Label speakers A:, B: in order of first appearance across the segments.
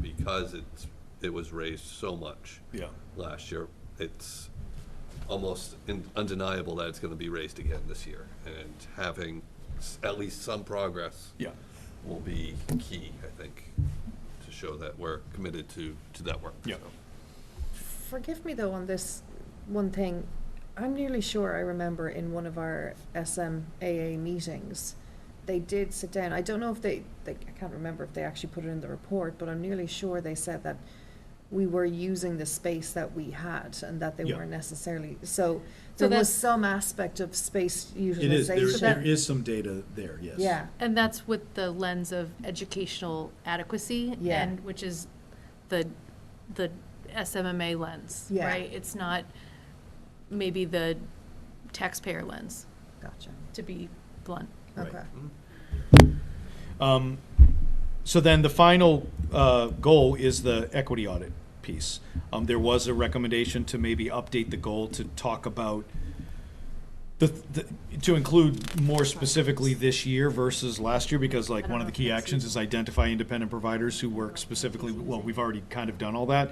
A: because it's, it was raised so much
B: Yeah.
A: last year, it's almost in- undeniable that it's going to be raised again this year. And having s- at least some progress
B: Yeah.
A: will be key, I think, to show that we're committed to, to that work.
B: Yeah.
A: So,
C: Forgive me though on this one thing. I'm nearly sure I remember in one of our SMAA meetings, they did sit down. I don't know if they, they, I can't remember if they actually put it in the report, but I'm nearly sure they said that we were using the space that we had and that they
D: Yeah.
C: weren't necessarily, so
E: So
C: there was
E: that's-
C: some aspect of space
D: It is, there is,
C: utilization.
D: there is some data there, yes.
C: Yeah,
E: And that's with the lens of educational adequacy
C: Yeah.
E: and, which is the, the SMMA lens,
C: Yeah.
E: right? It's not maybe the taxpayer lens,
C: gotcha,
E: to be blunt.
D: Right.
C: okay.
D: Um, So then the final uh, goal is the equity audit piece. Um, There was a recommendation to maybe update the goal to talk about the, the- to include more specifically this year versus last year, because like one of the key actions is identify independent providers who work specifically, well, we've already kind of done all that.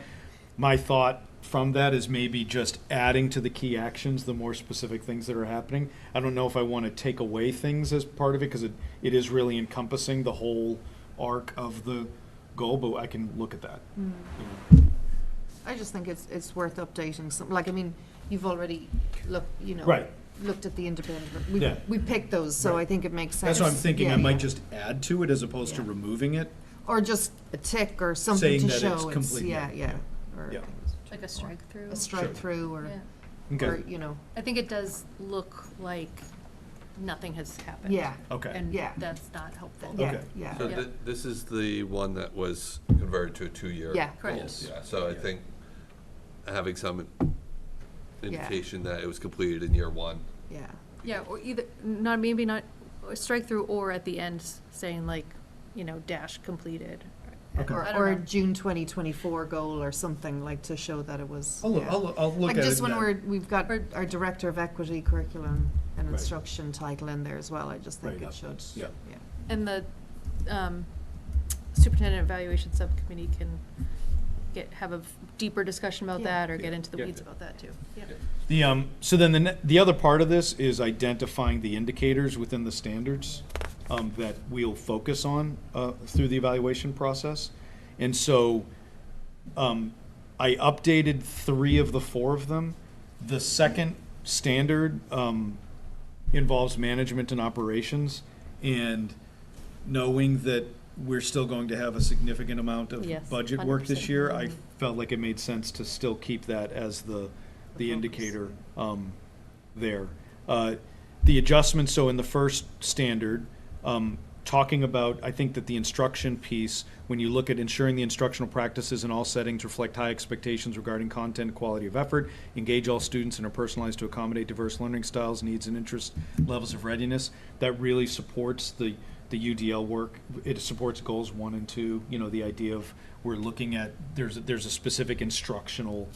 D: My thought from that is maybe just adding to the key actions, the more specific things that are happening. I don't know if I want to take away things as part of it, because it, it is really encompassing the whole arc of the goal, but I can look at that.
C: I just think it's, it's worth updating some, like, I mean, you've already looked, you know.
D: Right.
C: Looked at the independent,
D: Yeah.
C: we, we picked those, so I
D: Right.
C: think it makes sense.
D: That's what I'm thinking, I
C: Yeah.
D: might just add to it as opposed to
C: Yeah.
D: removing it.
C: Or just a tick or something
D: Saying
C: to
D: that
C: show.
D: it's complete,
C: Yeah,
D: yeah,
C: yeah. or-
D: yeah.
E: Like a strike through.
C: A
D: Sure.
C: strike through or,
E: Yeah.
C: or,
D: Okay,
C: you know,
E: I think it does look like nothing has happened.
C: yeah,
D: okay,
E: And
C: Yeah.
E: that's not helpful.
C: yeah,
D: Okay.
C: yeah.
A: So
E: Yeah.
A: thi- this is the one that was converted to a two-year.
C: Yeah.
E: Correct.
A: goal.
D: Yes.
A: Yeah, So I think having some indication that it was completed in year one.
C: Yeah,
E: Yeah, or either, not, maybe not, or strike through or at the end saying like, you know, dash completed.
D: Okay.
E: I
C: or,
E: don't
C: or a
E: know.
C: June twenty twenty-four goal or something, like to show that it was.
D: I'll,
C: yeah.
D: I'll, I'll look
C: Like
D: at it.
C: just when
D: then.
C: we're, we've got
E: Or-
C: our Director of Equity Curriculum and
D: Right.
C: Instruction title in there as well, I just think
D: Right.
C: it should.
D: Yeah.
E: And the um, superintendent evaluation subcommittee can get, have a deeper discussion about
C: Yeah.
E: that or get
A: Yeah.
E: into the
A: Yeah.
E: weeds about that too. Yeah.
D: The, um, so then the, ne- the other part of this is identifying the indicators within the standards um, that we'll focus on uh, through the evaluation process. And so um, I updated three of the four of them. The second standard um, involves management and operations and knowing that we're still going to have a significant amount of
E: Yes,
D: budget work this
E: 100%.
D: year, I felt like it made sense to still keep that as the, the indicator um, there. Uh, The adjustments, so in the first standard, um, talking about, I think that the instruction piece, when you look at ensuring the instructional practices in all settings reflect high expectations regarding content, quality of effort, engage all students and are personalized to accommodate diverse learning styles, needs, and interest levels of readiness, that really supports the, the UDL work. It supports goals one and two, you know, the idea of we're looking at, there's, there's a specific instructional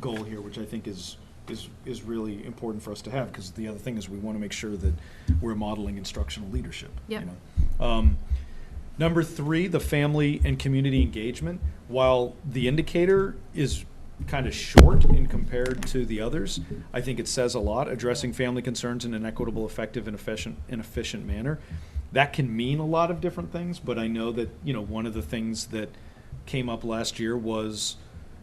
D: goal here, which I think is, is, is really important for us to have, because the other thing is we want to make sure that we're modeling instructional leadership. you
E: Yep.
D: know. Um, Number three, the family and community engagement. While the indicator is kind of short in compared to the others, I think it says a lot, addressing family concerns in an equitable, effective, and efficient, and efficient manner. That can mean a lot of different things, but I know that, you know, one of the things that came up last year was,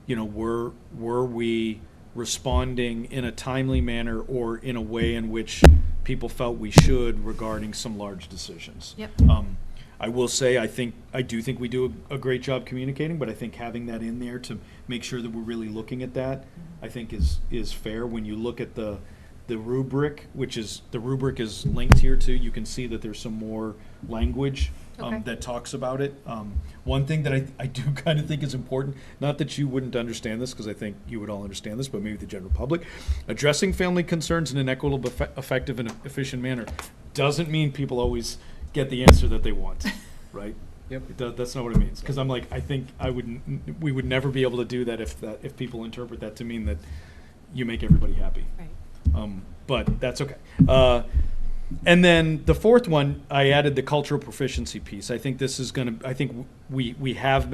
D: you know, were, were we responding in a timely manner or in a way in which people felt we should regarding some large decisions?
E: Yep.
D: Um, I will say, I think, I do think we do a, a great job communicating, but I think having that in there to make sure that we're really looking at that, I think is, is fair. When you look at the, the rubric, which is, the rubric is linked here too, you can see that there's some more language um,
E: Okay.
D: that talks about it. Um, one thing that I, I do kind of think is important, not that you wouldn't understand this, because I think you would all understand this, but maybe the general public, addressing family concerns in an equitable, effe- effective, and efficient manner doesn't mean people always get the answer that they want, right?
B: Yep.
D: It does, that's not what it means, because I'm like, I think I would, n- we would never be able to do that if that, if people interpret that to mean that you make everybody happy.
E: Right.
D: Um, but that's okay. Uh, and then the fourth one, I added the cultural proficiency piece. I think this is going to, I think w- we, we have been.